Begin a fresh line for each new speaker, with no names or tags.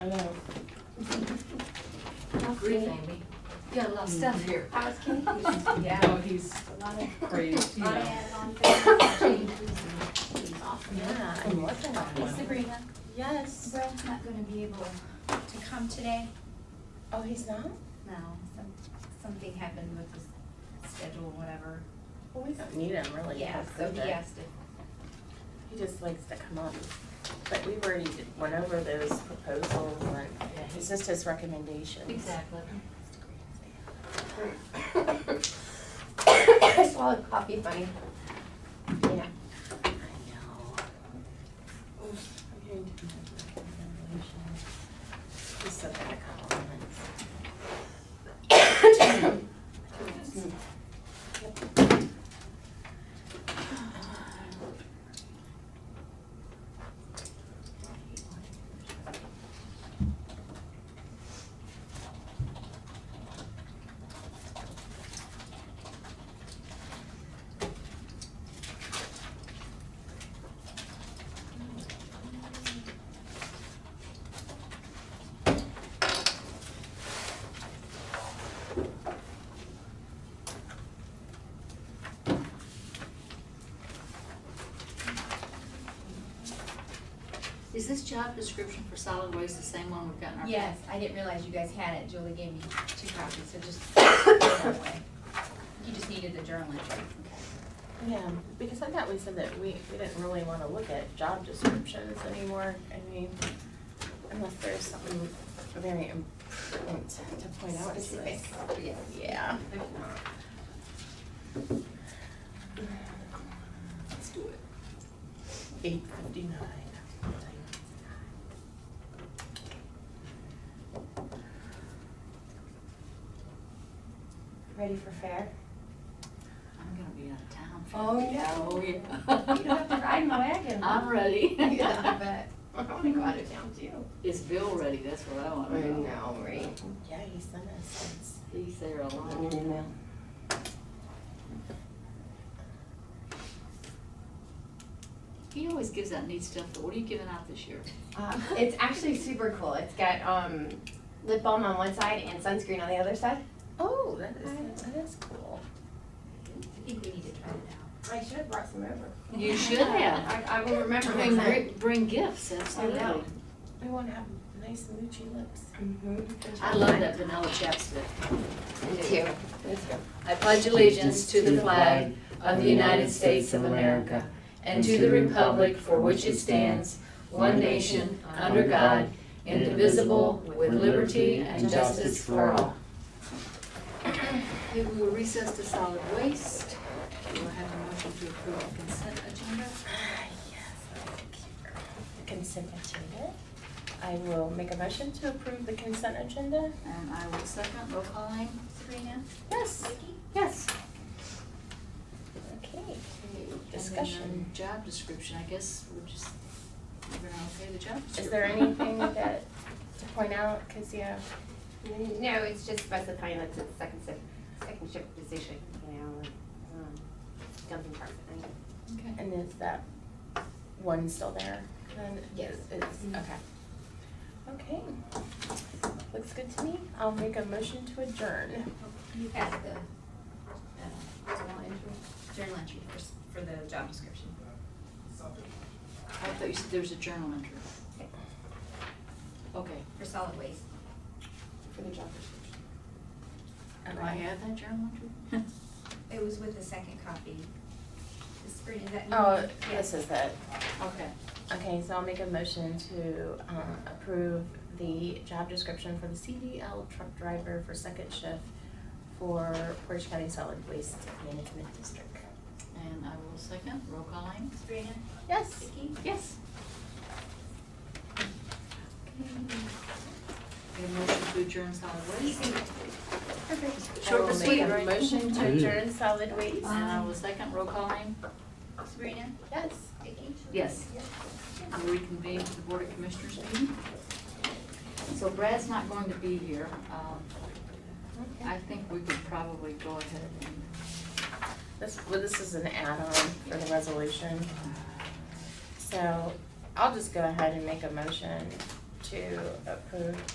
grief, Amy. You got a lot of stuff here.
I was kidding. A
Yeah, Oh, he's
Oh, lot of,
crazy, you
lot of
know.
add-on things, changes. He's awesome.
Yeah, I love that
Hey,
one.
Sabrina,
Yes.
Ralph's not gonna be able to come today.
Oh, he's not?
No, some, something happened with his schedule, whatever.
Well, we don't need him really.
Yeah,
That's
so
good.
he asked if
He just likes to come up. But we already did- went over those proposals and it's just his recommendations.
Exactly.
I swallowed coffee funny. Yeah. I know. Oof, I'm hearing too much recommendations. He's so bad at compliments.
Is this job description for solid waste the same one we've got in our?
Yes, I didn't realize you guys had it. Julie gave me two copies, so just put it that way. You just needed the journal entry.
Yeah, because I thought we said that we, we didn't really wanna look at job descriptions anymore, I mean, unless there's something very important to point out to
Specific.
us. Yeah. Let's do it. Eight fifty-nine. Ready for fair?
I'm gonna be out of town.
Oh, yeah.
Oh, yeah.
You don't have to ride my wagon.
I'm ready.
Yeah, but
I wanna go out of town too.
Is Bill ready? That's what I want to know.
right? Yeah, he sent us
He's there a lot.
an email.
He always gives out neat stuff, but what are you giving out this year?
Um,
Uh,
it's actually super cool. It's got um, lip balm on one side and sunscreen on the other side.
Oh, that is, that is cool.
I think we need to try it
I should have brought some over.
You should have.
I, I will remember
Bring,
next time.
bring- bring gifts, absolutely.
know.
We wanna have nice moochy lips.
Mm-hmm.
I love that vanilla chapstick.
Me too.
I pledge allegiance to the flag of the United States of America and to the republic for which it stands, one nation, under God, indivisible, with liberty and justice for all. Okay, we will recess to solid waste. We will have a motion to approve the consent agenda.
Consent agenda. I will make a motion to approve the consent agenda.
And I will second, roll calling.
Sabrina,
um,
Yes.
Vicky?
Yes. Okay, discussion.
And then job description, I guess we're just, we're gonna okay the job description.
Is there anything that, to point out, cause yeah,
No, it's just specifying that's a second shift, second shift position, you know, um, dumping part.
Okay.
and is that one still there? Then
Yes.
It's, okay. Okay. Looks good to me. I'll make a motion to adjourn.
you got the, uh, journal entry? Journal entry first for the job description.
I thought you said there was a journal entry. Okay.
For solid waste.
For the job description.
Do I have that journal entry?
It was with the second copy. Is Sabrina, is that you?
Oh,
Mm-hmm.
Yes.
this is it.
Okay.
Okay, so I'll make a motion to um, approve the job description for the CDL truck driver for second shift for Portage County Solid Waste Management District.
And I will second, roll call Amy.
Sabrina,
Yes.
Vicky?
Yes. We have motion to adjourn solid waste.
Easy.
Short and sweet, Um,
I will
right?
make a motion to adjourn solid waste.
And I will second, roll call Amy.
Sabrina,
Yes.
Vicky?
Yes. I'm reconvening to the Board of Commissioners meeting. So Brad's not going to be here. Um, I think we could probably go ahead and
This, well, this is an add-on for the resolution.
uh,
So I'll just go ahead and make a motion to approve